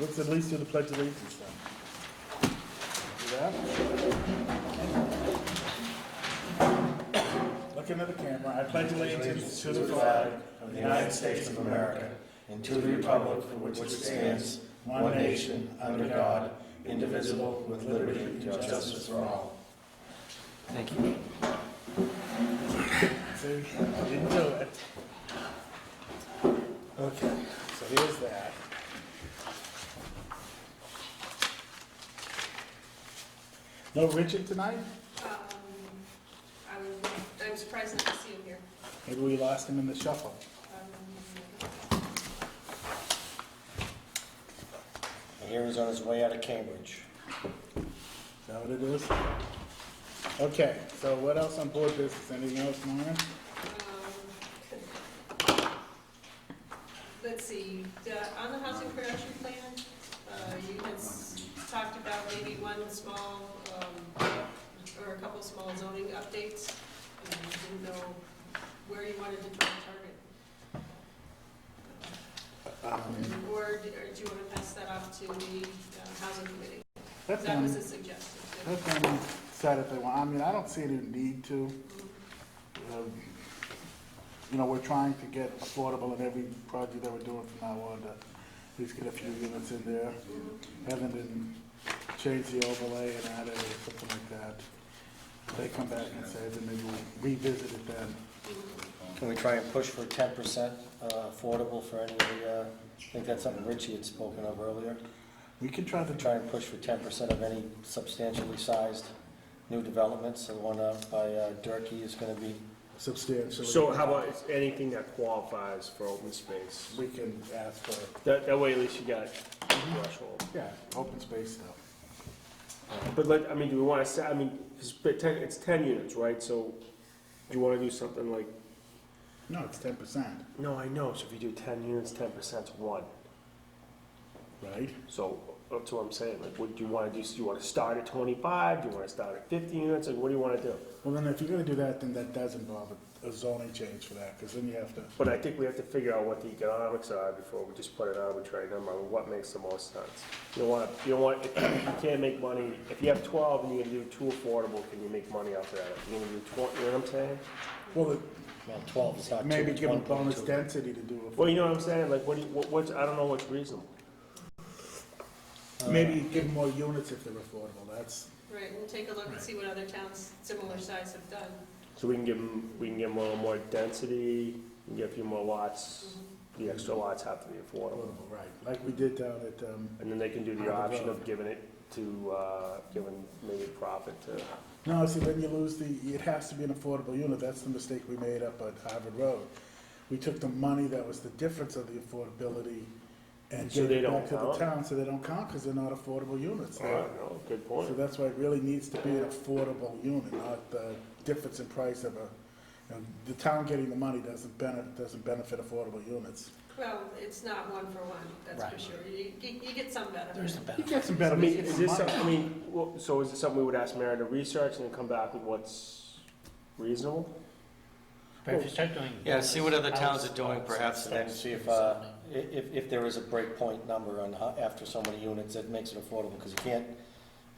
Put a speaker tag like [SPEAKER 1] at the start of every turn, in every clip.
[SPEAKER 1] Let's at least do the pledge of allegiance then. Do that. Look into the camera. I pledge allegiance to the flag
[SPEAKER 2] of the United States of America and to the republic for which it stands, one nation, under God, indivisible, with liberty and justice for all.
[SPEAKER 3] Thank you.
[SPEAKER 1] See, I didn't do it. Okay, so here's that. No Richard tonight?
[SPEAKER 4] Um, I'm, I'm surprised not to see him here.
[SPEAKER 1] Maybe we lost him in the shuffle.
[SPEAKER 4] Um,
[SPEAKER 2] I hear he's on his way out of Cambridge.
[SPEAKER 1] Is that what it is? Okay, so what else on board business? Anything else, Norman?
[SPEAKER 4] um, Let's see, the- on the housing production plan, uh, you had s- talked about maybe one small, um, or a couple small zoning updates. and you Didn't know where you wanted to try to target. Or do or do you want to pass that off to the uh, housing committee?
[SPEAKER 1] That's
[SPEAKER 4] That was
[SPEAKER 1] them,
[SPEAKER 4] a suggestion. yeah.
[SPEAKER 1] let them decide if they want, I mean, I don't see any need to. Um, You know, we're trying to get affordable in every project that we're doing from now on, to at least get a few units in there. Haven't been, change the overlay and add it or something like that. If They come back and say, then maybe we revisit it then.
[SPEAKER 2] Can we try and push for ten percent uh, affordable for any of the, uh, I think that's something Richie had spoken of earlier.
[SPEAKER 1] We can try to,
[SPEAKER 2] Try and push for ten percent of any substantially sized new developments. The one out by uh, Durkee is gonna be,
[SPEAKER 1] substantially.
[SPEAKER 5] So how about it's anything that qualifies for open space?
[SPEAKER 1] We can ask for
[SPEAKER 5] That, that way at least you got a threshold.
[SPEAKER 1] Yeah, open space stuff.
[SPEAKER 5] But like, I mean, do we wanna say, I mean, it's but ten, it's ten units, right? So do you wanna do something like,
[SPEAKER 1] No, it's ten percent,
[SPEAKER 5] no, I know, so if you do ten units, ten percent's one.
[SPEAKER 1] right?
[SPEAKER 5] So that's what I'm saying, like, what do you wanna do? Do you wanna start at twenty-five? Do you wanna start at fifty units? Like, what do you wanna do?
[SPEAKER 1] Well, then if you're gonna do that, then that does involve a- a zoning change for that, because then you have to,
[SPEAKER 5] But I think we have to figure out what the economics are before we just put an arbitrary number on what makes the most sense. You don't want, you don't want, if you can't make money, if you have twelve and you're gonna do two affordable, can you make money off that? You're gonna do twenty, you know what I'm saying?
[SPEAKER 1] well,
[SPEAKER 2] well, twelve is not
[SPEAKER 1] it-
[SPEAKER 2] two,
[SPEAKER 1] maybe
[SPEAKER 2] it's
[SPEAKER 1] give them
[SPEAKER 2] 1.2.
[SPEAKER 1] bonus density to do
[SPEAKER 5] Well, you know what I'm saying, like, what do you, what, what's, I don't know what's reasonable.
[SPEAKER 1] it. Maybe uh, give them more units if they're affordable, that's,
[SPEAKER 4] Right, we'll take a look and see what other towns similar size have done.
[SPEAKER 5] So we can give them, we can give them a little more density, we can get a few more lots, the extra lots have to be affordable.
[SPEAKER 1] affordable, right, like we did down at, um,
[SPEAKER 5] And then they can do the option of giving it to, uh, giving maybe profit to
[SPEAKER 1] no, see, then you lose the, it has to be an affordable unit, that's the mistake we made up at Harvard Road. We took the money that was the difference of the affordability and
[SPEAKER 5] So
[SPEAKER 1] gave
[SPEAKER 5] they
[SPEAKER 1] it back
[SPEAKER 5] don't
[SPEAKER 1] to the
[SPEAKER 5] count?
[SPEAKER 1] town, so they don't count, because they're not affordable units.
[SPEAKER 5] I
[SPEAKER 1] They're-
[SPEAKER 5] don't know, good point.
[SPEAKER 1] So that's why it really needs to be an affordable unit, not the difference in price of a, you know, the town getting the money doesn't benefit, doesn't benefit affordable units.
[SPEAKER 4] Well, it's not one for one, that's for
[SPEAKER 2] Right.
[SPEAKER 4] sure. You, you you get some
[SPEAKER 2] There's
[SPEAKER 4] benefit.
[SPEAKER 2] the
[SPEAKER 1] You
[SPEAKER 2] benefit.
[SPEAKER 1] get some
[SPEAKER 5] I
[SPEAKER 1] better,
[SPEAKER 5] mean, is this, some-
[SPEAKER 1] money.
[SPEAKER 5] I mean, well, so is it something we would ask Mary to research and then come back with what's reasonable?
[SPEAKER 6] But if you start doing.
[SPEAKER 3] Yeah, see what other towns are doing, perhaps,
[SPEAKER 2] And then see if, uh, i- if, if there is a breakpoint number on how, after so many units, that makes it affordable, because you can't,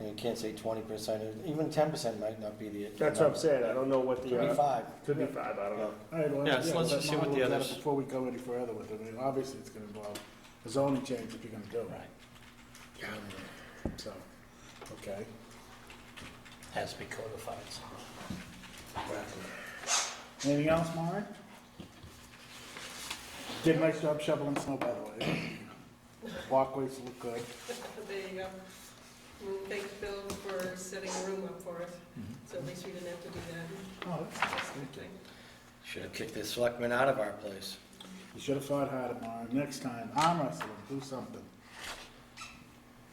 [SPEAKER 2] you can't say twenty percent, even ten percent might not be the.
[SPEAKER 5] That's what I'm saying, I don't know what the, uh,
[SPEAKER 2] Twenty-five.
[SPEAKER 5] could be five, I don't know.
[SPEAKER 1] All right, well,
[SPEAKER 3] Yeah,
[SPEAKER 1] yeah,
[SPEAKER 3] so let's
[SPEAKER 1] let
[SPEAKER 3] just see what
[SPEAKER 1] Mark
[SPEAKER 3] the
[SPEAKER 1] look at it
[SPEAKER 3] others-
[SPEAKER 1] Before we go any further with it, I mean, obviously it's gonna involve a zoning change if you're gonna do it.
[SPEAKER 6] Right.
[SPEAKER 1] Yeah. So, okay.
[SPEAKER 6] Has to be codified, so.
[SPEAKER 1] Anything else, Maury? Did a nice job shoveling snow, by the way. Walkways look good.
[SPEAKER 4] There you go. We'll thank Bill for setting a room up for us,
[SPEAKER 2] Mm-hmm.
[SPEAKER 4] so at least we didn't have to do that.
[SPEAKER 1] Oh, that's nice, thank you.
[SPEAKER 2] Should have kicked the selectmen out of our place.
[SPEAKER 1] You should have fought harder, Mara. Next time, arm wrestle him, do something.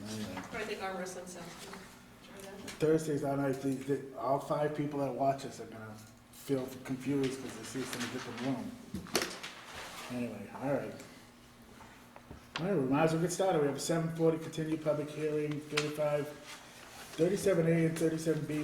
[SPEAKER 1] Anyway,
[SPEAKER 4] Or I think arm wrestling sounds good. Try that.
[SPEAKER 1] Thursdays, I know, the, the, all five people that watch us are gonna feel confused because they see us in a different room. Anyway, all right. All right, we might as well get started. We have a seven forty continued public hearing, thirty-five, thirty-seven A and thirty-seven B